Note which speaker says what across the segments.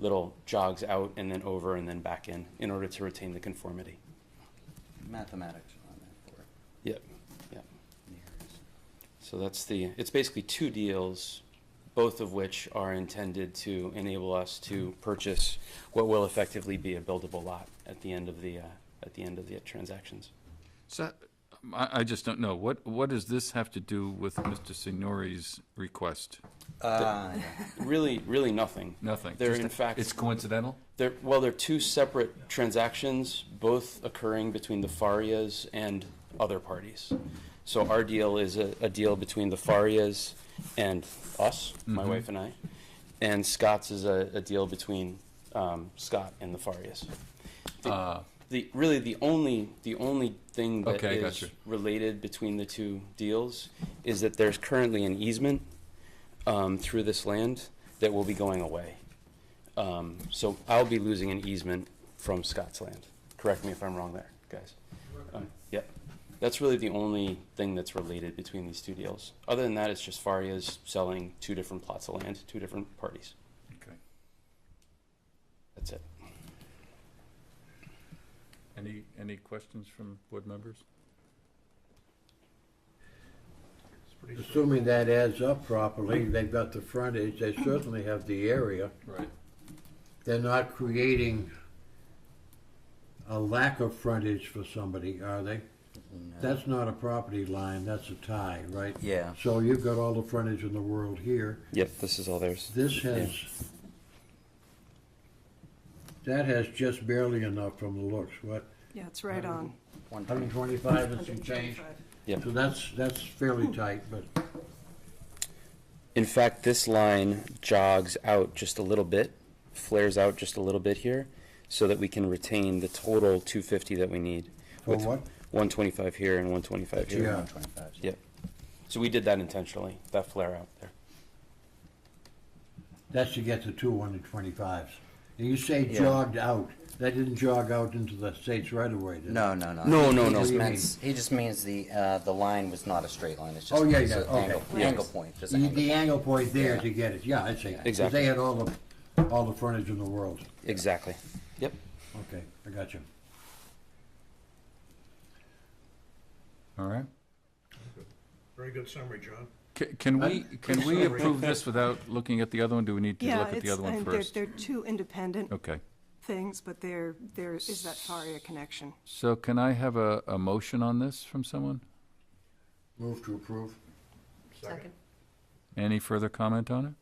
Speaker 1: little jogs out and then over and then back in, in order to retain the conformity.
Speaker 2: mathematics on that for
Speaker 1: Yep, yep.
Speaker 2: years.
Speaker 1: So that's the, it's basically two deals, both of which are intended to enable us to purchase what will effectively be a buildable lot at the end of the, uh, at the end of the transactions.
Speaker 3: So, I, I just don't know. What, what does this have to do with Mr. Signori's request?
Speaker 2: Uh, yeah.
Speaker 1: Really, really nothing.
Speaker 3: Nothing.
Speaker 1: They're
Speaker 3: Just-
Speaker 1: in fact-
Speaker 3: It's coincidental?
Speaker 1: They're, well, they're two separate transactions, both occurring between the Farias and other parties. So our deal is a, a deal between the Farias and us, my wife and I. And Scott's is a, a deal between um, Scott and the Farias. The,
Speaker 3: Uh,
Speaker 1: the really the only the only thing that is
Speaker 3: Okay, gotcha.
Speaker 1: related between the two deals is that there's currently an easement um, through this land that will be going away. Um, so I'll be losing an easement from Scott's land. Correct me if I'm wrong there, guys. Um, yep. That's really the only thing that's related between these two deals. Other than that, it's just Faria's selling two different plots of land, two different parties.
Speaker 3: Okay.
Speaker 1: That's it.
Speaker 3: Any, any questions from board members?
Speaker 4: Assuming that adds up properly, they've got the frontage, they certainly have the area.
Speaker 3: Right.
Speaker 4: They're not creating a lack of frontage for somebody, are they? That's not a property line, that's a tie, right?
Speaker 2: Yeah.
Speaker 4: So you've got all the frontage in the world here.
Speaker 1: Yep, this is all theirs.
Speaker 4: This has, that has just barely enough from the looks, what,
Speaker 5: Yeah, it's right on.
Speaker 2: One twenty.
Speaker 4: hundred twenty-five and some change?
Speaker 5: 125.
Speaker 1: Yep.
Speaker 4: So that's, that's fairly tight, but.
Speaker 1: In fact, this line jogs out just a little bit, flares out just a little bit here, so that we can retain the total 250 that we need.
Speaker 4: For
Speaker 1: with
Speaker 4: what?
Speaker 1: 125 here and 125 here.
Speaker 4: Yeah.
Speaker 2: One twenty-five.
Speaker 1: Yep. So we did that intentionally, that flare out there.
Speaker 4: That's to get the two one and twenty-fives. And you say jogged out, that didn't jog out into the states right away, did it?
Speaker 2: No, no, no.
Speaker 1: No,
Speaker 2: He-
Speaker 1: no,
Speaker 2: he
Speaker 1: no.
Speaker 2: just
Speaker 4: What do you
Speaker 2: means- He just means the, uh, the line was not a straight line, it's just.
Speaker 4: Oh, yeah,
Speaker 2: it's
Speaker 4: yeah,
Speaker 2: a
Speaker 4: okay.
Speaker 2: angle-
Speaker 1: Yeah.
Speaker 2: Angle point, just an
Speaker 4: The,
Speaker 2: angle.
Speaker 4: the angle point there
Speaker 2: Yeah.
Speaker 4: to get it, yeah, I'd say. 'cause
Speaker 1: Exactly.
Speaker 4: They had all the, all the frontage in the world.
Speaker 1: Exactly. Yep.
Speaker 4: Okay, I got you.
Speaker 3: All right.
Speaker 6: Very good summary, John.
Speaker 3: Ca- Can we, can we approve this without looking at the other one? Do we need to
Speaker 5: Yeah,
Speaker 3: look at the
Speaker 5: it's,
Speaker 3: other one
Speaker 5: and they're,
Speaker 3: first?
Speaker 5: they're two independent
Speaker 3: Okay.
Speaker 5: things, but there, there is that Faria connection.
Speaker 3: So can I have a, a motion on this from someone?
Speaker 4: Move to approve.
Speaker 6: Second.
Speaker 3: Any further comment on it?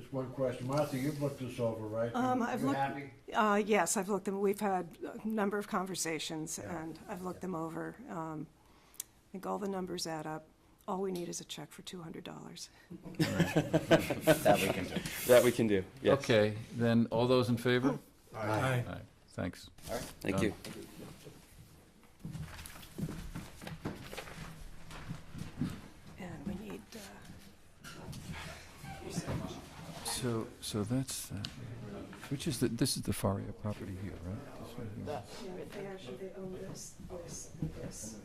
Speaker 4: Just one question. Martha, you've looked this over, right?
Speaker 5: Um, I've
Speaker 4: You
Speaker 5: looked-
Speaker 4: happy?
Speaker 5: Uh, yes, I've looked them, we've had a number of conversations, and I've looked them over. Um, I think all the numbers add up. All we need is a check for two hundred dollars.
Speaker 2: That we can do.
Speaker 1: That we can do. Yes.
Speaker 3: Okay, then all those in favor?
Speaker 6: Aye.
Speaker 3: All right, Thanks.
Speaker 1: Thank you.
Speaker 5: And we need, uh,
Speaker 3: So, so that's, uh, which is the, this is the Faria property here, right? This one here.
Speaker 5: yeah, they actually, they own this, this, and this.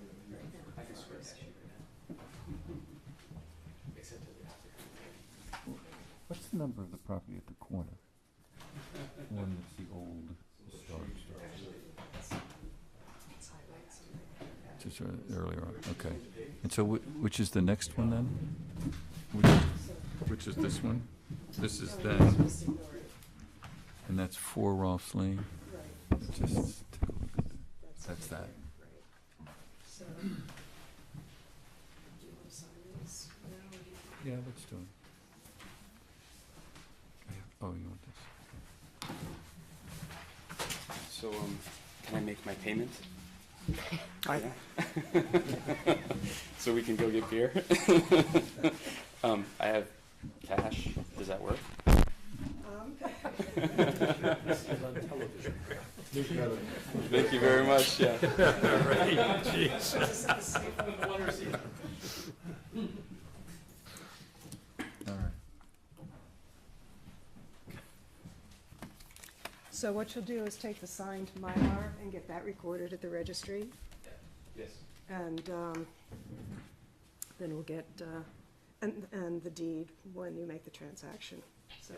Speaker 3: What's the number of the property at the corner? The One that's the old Stark. Just ear- earlier on, okay. And so whi- which is the next one then? Which- Which is this one? This is then, and that's four Rolfs Lane? Just take a look at that. That's that. Yeah, let's do it. I have- Oh, you want this?
Speaker 1: So, um, can I make my payment?
Speaker 5: I-
Speaker 1: Yeah. So we can go get beer? Um, I have cash. Does that work?
Speaker 5: Um,
Speaker 1: Thank you very much, yeah.
Speaker 3: All right.
Speaker 5: So what you'll do is take the signed Mylar and get that recorded at the registry,
Speaker 1: Yes.
Speaker 5: and um, then we'll get, uh, and, and the deed when you make the transaction, so.